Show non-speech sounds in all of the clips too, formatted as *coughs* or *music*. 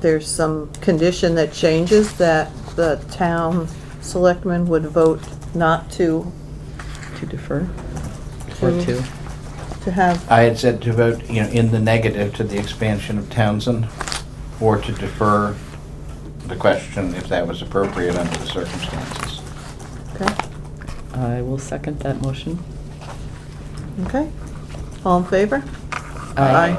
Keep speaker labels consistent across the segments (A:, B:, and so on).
A: there's some condition that changes, that the town selectmen would vote not to,
B: To defer? Or
A: To-
B: to?
A: to have,
C: I had said to vote, you know, in the negative to the expansion of Townsend, or to defer the question if that was appropriate under the circumstances.
A: okay,
B: I will second that motion.
A: okay? All in favor?
B: Aye.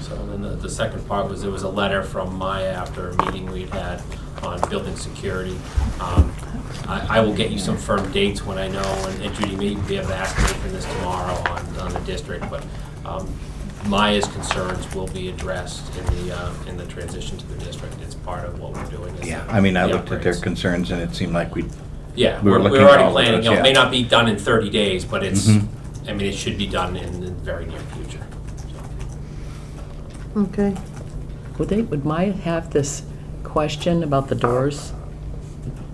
D: So then the, the second part was, there was a letter from Maya after a meeting we'd had on building security. Um, I, I will get you some firm dates when I know, and- and Judy may be able to ask me for this tomorrow on, on the district, but, um, Maya's concerns will be addressed in the, uh, in the transition to the district. It's part of what we're doing. is
C: Yeah, I mean, I
D: the
C: looked at their
D: upgrades.
C: concerns and it seemed like we,
D: Yeah,
C: We
D: we're,
C: were
D: we're
C: looking at all
D: already
C: of
D: planning,
C: those,
D: you know, it may
C: yeah.
D: not be done in thirty days, but it's,
C: Mhm.
D: I mean, it should be done in the very near future. so.
A: Okay,
B: Would they, would Maya have this question about the doors,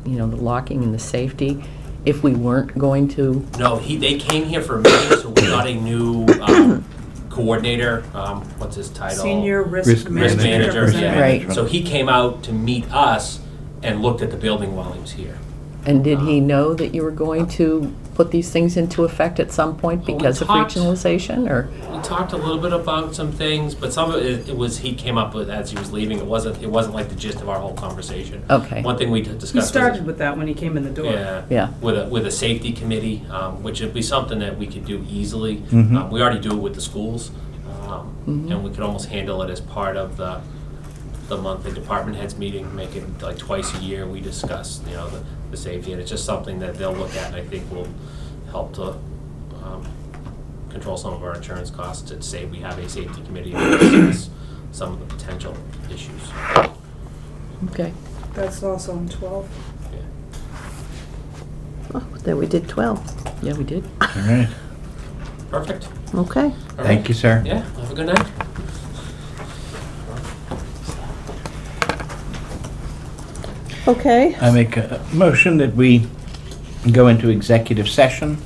B: you know, the locking and the safety, if we weren't going to?
D: No, he, they came here for a meeting, so we got a new um, coordinator, um, what's his title?
E: Senior risk
C: Risk
D: Risk
E: manager.
D: manager, yeah.
B: Right.
D: So he came out to meet us and looked at the building while he was here.
B: And did he know that you were going to put these things into effect at some point
D: Well, we
B: because of
D: talked-
B: regionalization, or?
D: We talked a little bit about some things, but some of it, it was, he came up with as he was leaving, it wasn't, it wasn't like the gist of our whole conversation.
B: Okay.
D: One thing we d- discussed.
E: He
D: was-
E: started with that when he came in the door.
D: Yeah.
B: Yeah.
D: With a, with a safety committee, um, which would be something that we could do easily.
C: Mhm.
D: Um, We already do it with the schools, um,
C: Mm-hmm.
D: and we could almost handle it as part of the, the monthly department heads meeting, make it like twice a year, we discuss, you know, the, the safety, and it's just something that they'll look at, and I think will help to, um, control some of our insurance costs, and say we have a safety committee to discuss some of the potential issues.
B: Okay.
E: That's also on 12.
D: Yeah.
A: Oh, then we did 12,
B: Yeah, we did.
C: all right.
D: Perfect.
A: okay.
D: All
C: Thank
D: right.
C: you, sir.
D: Yeah, have a good night.
A: Okay,
C: I make a motion that we go into executive session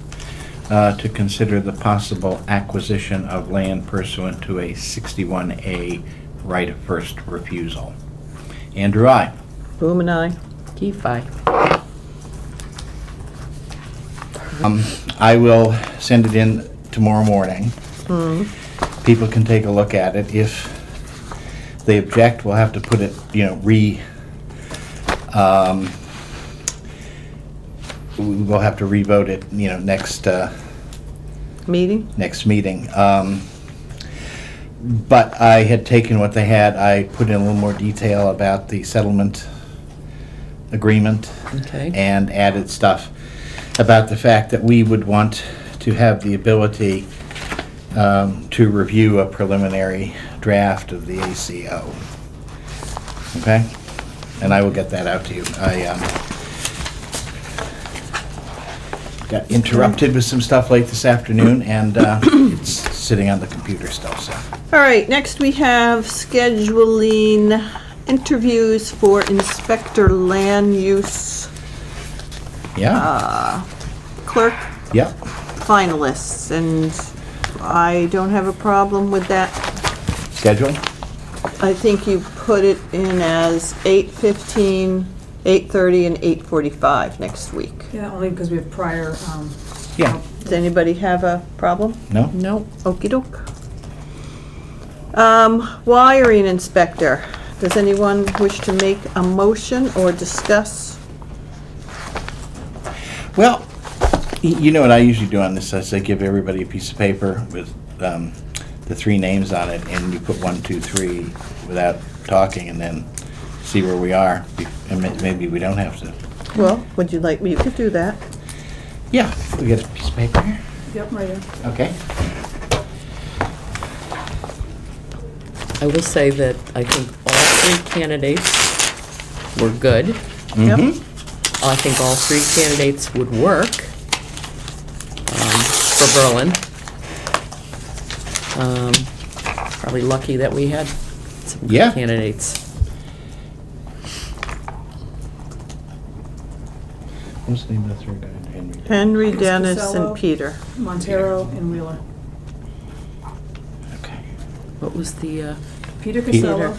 C: uh, to consider the possible acquisition of land pursuant to a 61A right of first refusal. Andrew, I.
A: Boom and I.
B: Key five.
C: Um, I will send it in tomorrow morning. People can take a look at it. If they object, we'll have to put it, you know, re, um, we'll have to revote it, you know, next, uh,
A: meeting?
C: next meeting. Um, But I had taken what they had, I put in a little more detail about the settlement agreement.
B: Okay.
C: And added stuff about the fact that we would want to have the ability um, to review a preliminary draft of the ACO. Okay? And I will get that out to you. I um, got interrupted with some stuff late this afternoon, and uh, *coughs* it's sitting on the computer still, so.
A: All right, next we have scheduling interviews for inspector land use
C: Yeah,
A: clerk
C: yep.
A: finalists, and I don't have a problem with that.
C: Schedule?
A: I think you put it in as 8:15, 8:30, and 8:45 next week.
E: Yeah, only because we have prior, um,
C: Yeah.
A: Does anybody have a problem?
C: No?
B: Nope.
A: okey doke. Um, wiring inspector, does anyone wish to make a motion or discuss?
C: Well, y- you know what I usually do on this, is I give everybody a piece of paper with um, the three names on it, and you put one, two, three without talking, and then see where we are, be- and ma- maybe we don't have to.
A: Well, would you like me to do that?
C: Yeah, we get a piece of paper here.
E: yep, right here.
C: Okay.
B: I will say that I think all three candidates were good.
A: Yep.
C: Mm-hmm.
B: I think all three candidates would work um, for Berlin. Um, Probably lucky that we had some
C: Yeah.
B: good candidates.
C: What's the name of the third guy? Henry.
A: Henry, Dennis, and
E: Casello.
A: Peter.
E: Montero and Wheeler.
C: Okay.
B: What was the, uh?
E: Peter
C: Peter.
E: Casella.